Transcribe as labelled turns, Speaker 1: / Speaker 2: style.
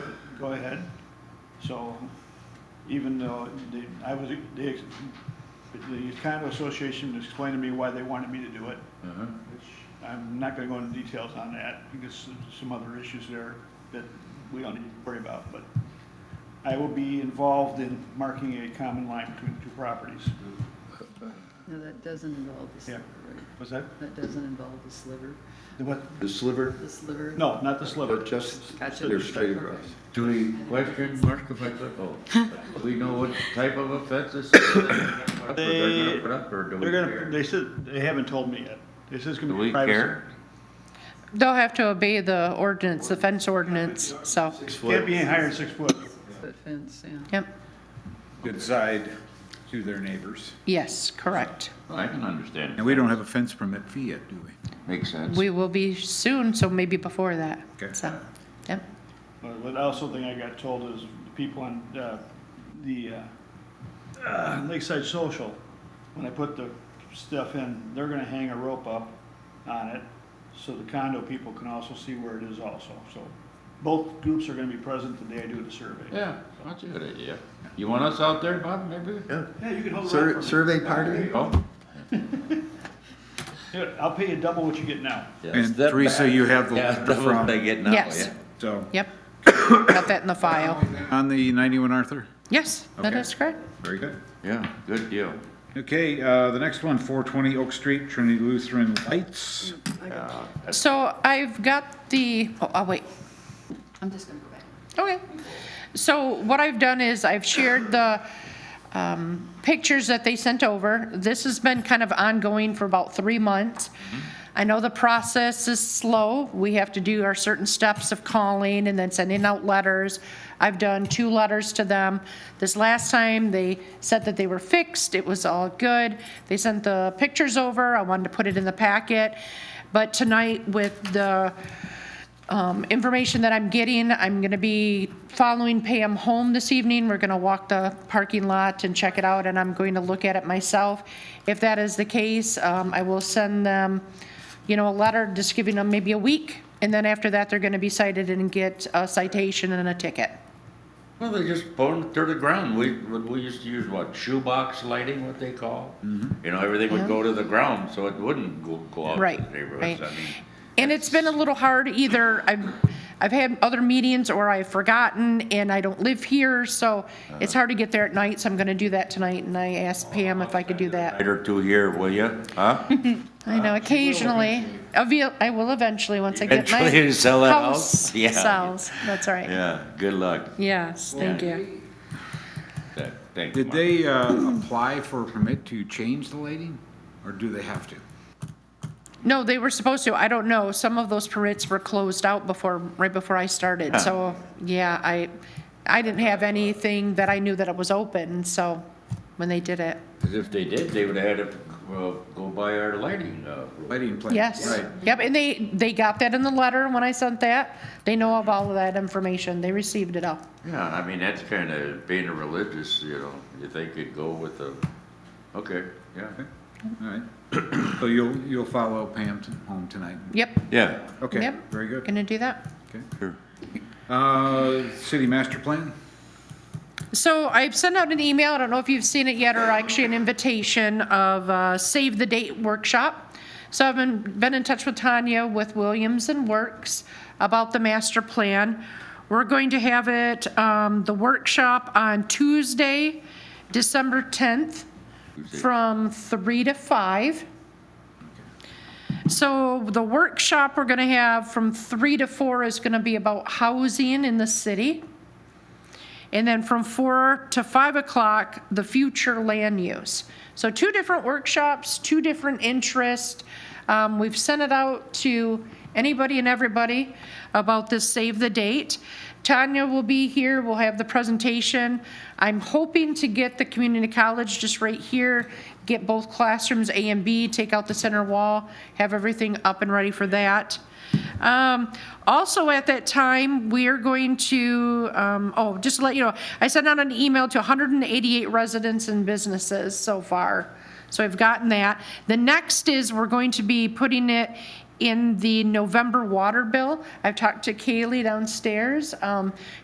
Speaker 1: go ahead. So even though they, I was, they, the condo association explained to me why they wanted me to do it.
Speaker 2: Mhm.
Speaker 1: which I'm not gonna go into details on that, because there's some other issues there that we don't need to worry about, but I will be involved in marking a common line between the two properties.
Speaker 3: No, that doesn't involve the
Speaker 1: Yeah.
Speaker 3: sliver, right?
Speaker 1: Was that,
Speaker 3: That doesn't involve the sliver,
Speaker 1: the what?
Speaker 4: The sliver,
Speaker 3: the sliver?
Speaker 1: No, not the sliver.
Speaker 4: but just,
Speaker 3: Gotcha.
Speaker 4: they're straight across.
Speaker 2: Do we question mark if I click, oh, do we know what type of offense this is? that They're gonna put up, or do we
Speaker 1: They're gonna,
Speaker 2: care?
Speaker 1: they said, they haven't told me yet. They said it's gonna
Speaker 2: Do
Speaker 1: be
Speaker 2: we
Speaker 1: privacy.
Speaker 2: care?
Speaker 5: They'll have to obey the ordinance, the fence ordinance, so,
Speaker 4: Six
Speaker 1: Can't
Speaker 4: foot,
Speaker 1: be any higher than six foot.
Speaker 3: That fence, yeah.
Speaker 5: yep,
Speaker 6: good side to their neighbors.
Speaker 5: yes, correct.
Speaker 2: I can understand.
Speaker 6: And we don't have a fence permit fee yet, do we?
Speaker 2: Makes sense.
Speaker 5: We will be soon, so maybe before that,
Speaker 6: Okay.
Speaker 5: so, yep.
Speaker 1: But what also thing I got told is the people on, uh, the, uh, uh, Lakeside Social, when I put the stuff in, they're gonna hang a rope up on it, so the condo people can also see where it is also, so both groups are gonna be present the day I do the survey.
Speaker 2: Yeah, that's a good idea. You want us out there, Bob, maybe?
Speaker 4: yeah.
Speaker 1: Yeah, you can hold it
Speaker 4: Sur-
Speaker 1: up for me.
Speaker 4: Survey party?
Speaker 2: Oh,
Speaker 1: Here, I'll pay you double what you get now.
Speaker 2: yeah.
Speaker 6: And Teresa, you have the
Speaker 2: Yeah,
Speaker 6: letter
Speaker 2: that's what
Speaker 6: from,
Speaker 2: they get now,
Speaker 5: Yes.
Speaker 2: yeah.
Speaker 6: so,
Speaker 5: Yep, got that in the file.
Speaker 6: on the 91 Arthur?
Speaker 5: Yes, that
Speaker 6: Okay.
Speaker 5: is correct.
Speaker 6: Very good.
Speaker 2: Yeah, good deal.
Speaker 6: Okay, uh, the next one, 420 Oak Street, Trinity Lutheran Lights.
Speaker 5: So I've got the, oh, I'll wait.
Speaker 3: I'm just gonna go back.
Speaker 5: Okay. So what I've done is I've shared the um, pictures that they sent over. This has been kind of ongoing for about three months. I know the process is slow. We have to do our certain steps of calling and then sending out letters. I've done two letters to them. This last time, they said that they were fixed, it was all good. They sent the pictures over, I wanted to put it in the packet. But tonight with the um, information that I'm getting. I'm going to be following Pam home this evening. We're going to walk the parking lot and check it out, and I'm going to look at it myself. If that is the case, um, I will send them, you know, a letter, just giving them maybe a week, and then after that, they're going to be cited and get a citation and a ticket.
Speaker 2: Well, they just burned it to the ground. We, we used to use what, shoebox lighting, what they call? You know, everything would go to the ground, so it wouldn't go, go out
Speaker 5: Right,
Speaker 2: to the neighborhoods. I
Speaker 5: right.
Speaker 2: mean,
Speaker 5: And it's been a little hard either, I've, I've had other meetings or I've forgotten and I don't live here, so it's hard to get there at night, so I'm gonna do that tonight and I asked Pam if I could do that.
Speaker 2: Night or two here, will you? Huh?
Speaker 5: I
Speaker 2: Uh,
Speaker 5: know occasionally, I will, I will eventually, once I get my
Speaker 2: Eventually you sell that house? Yeah.
Speaker 5: Sells, that's right.
Speaker 2: Yeah, good luck.
Speaker 5: Yes, thank you.
Speaker 2: That- Thank you.
Speaker 6: Did they uh, apply for a permit to change the lighting, or do they have to?
Speaker 5: No, they were supposed to, I don't know, some of those permits were closed out before, right before I started, so, yeah, I, I didn't have anything that I knew that it was open, so, when they did it,
Speaker 2: 'Cause if they did, they would have had to uh, go buy our lighting. uh,
Speaker 6: Lighting plan?
Speaker 5: yes.
Speaker 6: Right.
Speaker 5: Yep, and they, they got that in the letter when I sent that, they know of all of that information, they received it all.
Speaker 2: Yeah, I mean, that's kind of being a religious, you know, if they could go with the, okay, yeah.
Speaker 6: Okay, all right. So you'll, you'll follow Pam t- home tonight?
Speaker 5: Yep,
Speaker 2: Yeah.
Speaker 6: Okay,
Speaker 5: Yep.
Speaker 6: very good.
Speaker 5: gonna do that.
Speaker 6: Okay.
Speaker 2: Sure.
Speaker 6: Uh, City master plan?
Speaker 5: So I've sent out an email, I don't know if you've seen it yet, or actually an invitation of uh, Save the Date Workshop. So I've been, been in touch with Tanya with Williams and Works about the master plan. We're going to have it, um, the workshop on Tuesday, December 10th, from 3 to 5. So the workshop we're going to have from 3 to 4 is going to be about housing in the city. And then from four to five o'clock, the future land use. So two different workshops, two different interests. Um, we've sent it out to anybody and everybody about this save the date. Tanya will be here, we'll have the presentation. I'm hoping to get the community college just right here, get both classrooms A and B, take out the center wall, have everything up and ready for that. Um, also at that time, we are going to, um, oh, just to let you know, I sent out an email to hundred and eighty-eight residents and businesses so far. So I've gotten that. The next is we're going to be putting it in the November water bill. I've talked to Kaylee downstairs. Um,